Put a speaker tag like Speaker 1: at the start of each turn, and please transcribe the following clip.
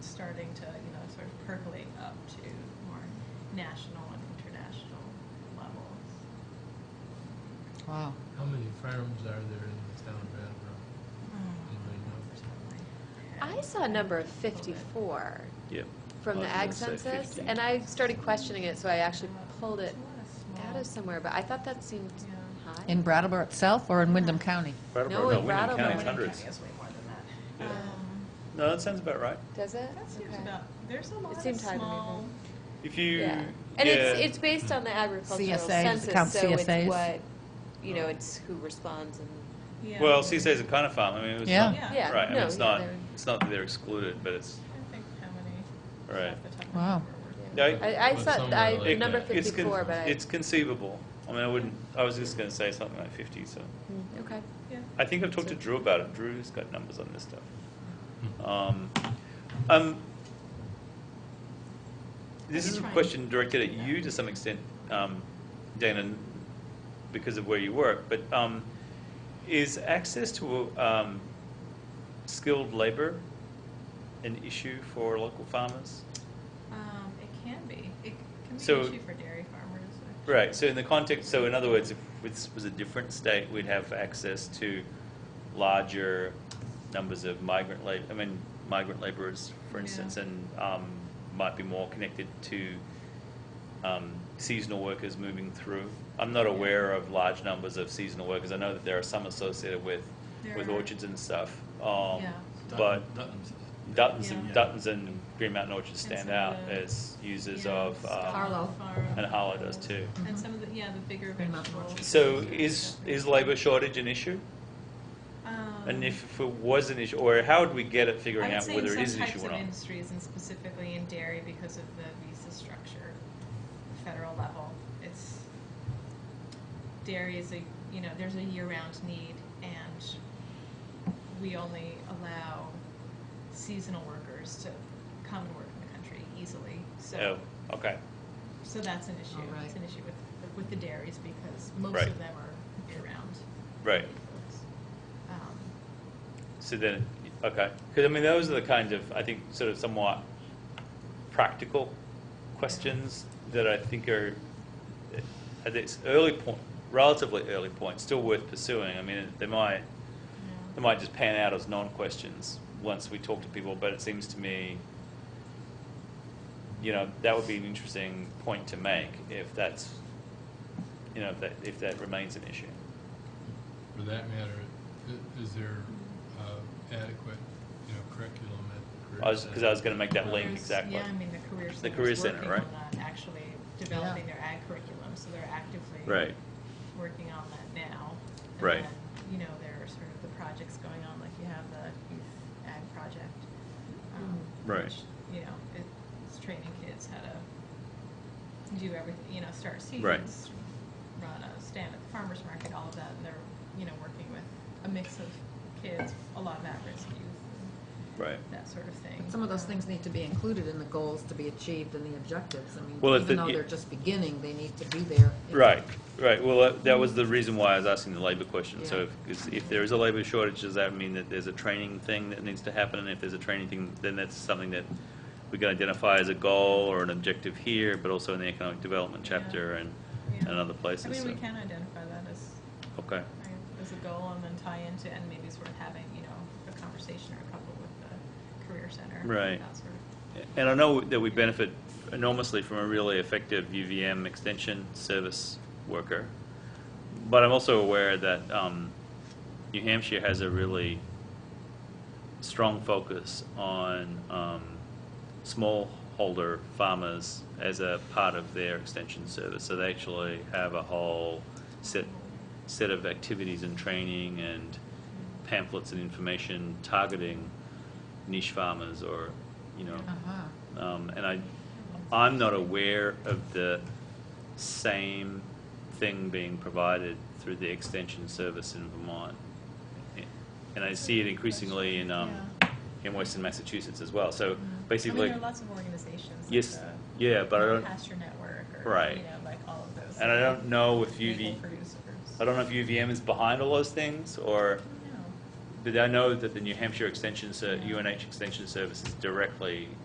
Speaker 1: percolate up to more national and international levels.
Speaker 2: Wow.
Speaker 3: How many firearms are there in the town of Attleboro? Anybody know?
Speaker 4: I saw a number of 54
Speaker 5: Yeah.
Speaker 4: from the
Speaker 5: I
Speaker 4: ag
Speaker 5: was gonna say
Speaker 4: census,
Speaker 5: 50.
Speaker 4: and I started questioning it, so I actually pulled it out
Speaker 1: out
Speaker 4: of somewhere, but I thought that seemed
Speaker 1: Yeah.
Speaker 4: high.
Speaker 2: In Brattleboro itself or in Wyndham County?
Speaker 5: Brattleboro,
Speaker 4: in
Speaker 5: Wyndham
Speaker 4: Brattleboro.
Speaker 5: County's
Speaker 4: Wyndham
Speaker 5: hundreds.
Speaker 1: way more than that.
Speaker 5: Yeah.
Speaker 1: Um,
Speaker 5: No, that sounds about right.
Speaker 4: Does it?
Speaker 1: That seems
Speaker 4: Okay.
Speaker 1: about, there's a lot of
Speaker 4: seemed high to me,
Speaker 1: small,
Speaker 5: If you,
Speaker 4: Yeah.
Speaker 5: yeah.
Speaker 4: And it's, it's based on the
Speaker 2: CSA,
Speaker 4: agricultural
Speaker 2: does it
Speaker 4: census,
Speaker 2: count
Speaker 4: so it's
Speaker 2: CSAs?
Speaker 4: what, you know, it's who responds and,
Speaker 1: yeah.
Speaker 5: well, CSA's a kind of farm. I mean, it's
Speaker 2: Yeah.
Speaker 5: not,
Speaker 1: Yeah.
Speaker 4: yeah, no.
Speaker 5: right. I mean, it's
Speaker 4: yeah,
Speaker 5: not,
Speaker 4: they're-
Speaker 5: it's not that they're excluded, but it's,
Speaker 1: I don't think how many.
Speaker 5: Right.
Speaker 1: off the top of my
Speaker 2: Wow.
Speaker 1: head were worth it.
Speaker 5: Yeah,
Speaker 4: I, I
Speaker 3: But
Speaker 4: thought,
Speaker 3: somewhere
Speaker 4: I,
Speaker 3: like
Speaker 4: number
Speaker 3: that.
Speaker 5: it's, con-
Speaker 4: 54, but I,
Speaker 5: it's conceivable. I mean, I wouldn't, I was just going to say something like 50, so.
Speaker 4: Mm, okay.
Speaker 1: Yeah.
Speaker 5: I think I've talked to Drew about it. Drew's got numbers on this stuff.
Speaker 3: Hmm.
Speaker 5: Um, um, this
Speaker 1: Have
Speaker 5: is
Speaker 1: you
Speaker 5: a
Speaker 1: tried?
Speaker 5: question directed at you to some extent, um, Dana, because of where you work. But um, is access to um, skilled labor an issue for local farmers?
Speaker 1: Um, it can be. It can be
Speaker 5: So-
Speaker 1: an issue for dairy farmers. actually.
Speaker 5: Right. So in the context, so in other words, if this was a different state, we'd have access to larger numbers of migrant labor. I mean, migrant laborers, for
Speaker 1: Yeah.
Speaker 5: instance, and um, might be more connected to um, seasonal workers moving through. I'm not aware of large numbers of seasonal workers. I know that there are some associated with with
Speaker 1: There are.
Speaker 5: orchards and stuff. Um,
Speaker 1: Yeah.
Speaker 5: But
Speaker 3: Dutton- Dutton's.
Speaker 5: Duttons,
Speaker 1: Yeah.
Speaker 5: and, Duttons and Green Mountain Orchards
Speaker 1: And
Speaker 5: stand
Speaker 1: some
Speaker 5: out
Speaker 1: of the-
Speaker 5: as users
Speaker 1: Yeah,
Speaker 5: of
Speaker 1: Scott
Speaker 5: um,
Speaker 2: Harlow.
Speaker 1: Farm.
Speaker 5: and Harlow does too.
Speaker 1: And some of the, yeah, the bigger
Speaker 2: They're not
Speaker 1: vegetables.
Speaker 2: much.
Speaker 5: So is, is labor shortage an issue?
Speaker 1: Um,
Speaker 5: And if it was an issue, or how would we get at figuring
Speaker 1: I would
Speaker 5: out
Speaker 1: say
Speaker 5: whether
Speaker 1: in
Speaker 5: it is
Speaker 1: some
Speaker 5: an issue
Speaker 1: types
Speaker 5: or
Speaker 1: of
Speaker 5: not?
Speaker 1: industries, and specifically in dairy, because of the visa structure, the federal level, it's dairy is a you know there's a year-round need, and we only allow seasonal workers to come and work in the country easily. So.
Speaker 5: Oh, okay,
Speaker 1: So that's an issue.
Speaker 2: Oh, right.
Speaker 1: It's an issue with, with the dairies because most
Speaker 5: Right.
Speaker 1: of them are year-round.
Speaker 5: right.
Speaker 1: folks. Um,
Speaker 5: So then, okay, because I mean, those are the kinds of, I think, sort of somewhat practical questions that I think are, at this early point, relatively early point, still worth pursuing. I mean, they might,
Speaker 1: yeah.
Speaker 5: They might just pan out as non-questions once we talk to people, but it seems to me, you know, that would be an interesting point to make if that's, you know, if that, if that remains an issue.
Speaker 3: For that matter, i- is there uh, adequate, you know, curriculum at the
Speaker 5: I was, because I was
Speaker 3: career
Speaker 5: going to make that link,
Speaker 1: There's-
Speaker 5: exactly.
Speaker 1: Yeah, I mean, the Career Center.
Speaker 5: Career Center, right?
Speaker 1: Working on that, actually developing their ag curriculum, so they're actively.
Speaker 5: Right.
Speaker 1: Working on that now. And
Speaker 5: Right.
Speaker 1: then, You know, there are sort of the projects going on, like you have the youth ag project. um,
Speaker 5: Mm. Right.
Speaker 1: which, You know, it's training kids how to do everything, you know, start
Speaker 5: Right.
Speaker 1: seasons, run a stand at the farmer's market, all of that, and they're, you know, working with a mix of kids, a lot of at-risk youth,
Speaker 5: Right.
Speaker 1: and that sort of thing.
Speaker 2: But some of those
Speaker 1: Um,
Speaker 2: things need to be included in the goals to be achieved and the objectives. I mean,
Speaker 5: Well, if
Speaker 2: even
Speaker 5: the-
Speaker 2: though they're just beginning, they need to be there.
Speaker 5: Right, right. Well, uh, that- that was the reason why I was asking the labor question. So
Speaker 2: Yeah.
Speaker 5: if, 'cause if there is a labor shortage, does that mean that there's a training thing that needs to happen? And if there's a training thing, then that's something that we can identify as a goal or an objective here, but also in the economic development
Speaker 1: Yeah.
Speaker 5: chapter and,
Speaker 1: Yeah.
Speaker 5: and other places.
Speaker 1: I mean, we
Speaker 5: so-
Speaker 1: can identify that as,
Speaker 5: Okay,
Speaker 1: as a goal and then tie into, and maybe it's worth having, you know, a conversation or a couple with the career center.
Speaker 5: Right.
Speaker 1: That sort of,
Speaker 5: and I know that we benefit enormously from a really effective UVM extension service worker, but I'm also aware that um, New Hampshire has a really strong focus on um, smallholder farmers as a part of their extension service. So they actually have a whole set set of activities and training and pamphlets and information targeting niche farmers or you know
Speaker 2: Uh-huh.
Speaker 5: um, and I, I'm not aware of the same thing being provided through the extension service in Vermont. And I see it increasingly in, um, in Western Massachusetts as well. So
Speaker 1: Mm-hmm. I mean,
Speaker 5: basically,
Speaker 1: there are lots of organizations. like
Speaker 5: yes,
Speaker 1: the
Speaker 5: yeah, but I don't,
Speaker 1: Pasture Network or,
Speaker 5: Right.
Speaker 1: you know, like all of those.
Speaker 5: and I don't know if
Speaker 1: Legal
Speaker 5: UV,
Speaker 1: producers.
Speaker 5: I don't know if UVM is behind all those things or,
Speaker 1: No.
Speaker 5: but I know that the New Hampshire Extension, Ser- UNH Extension Service is directly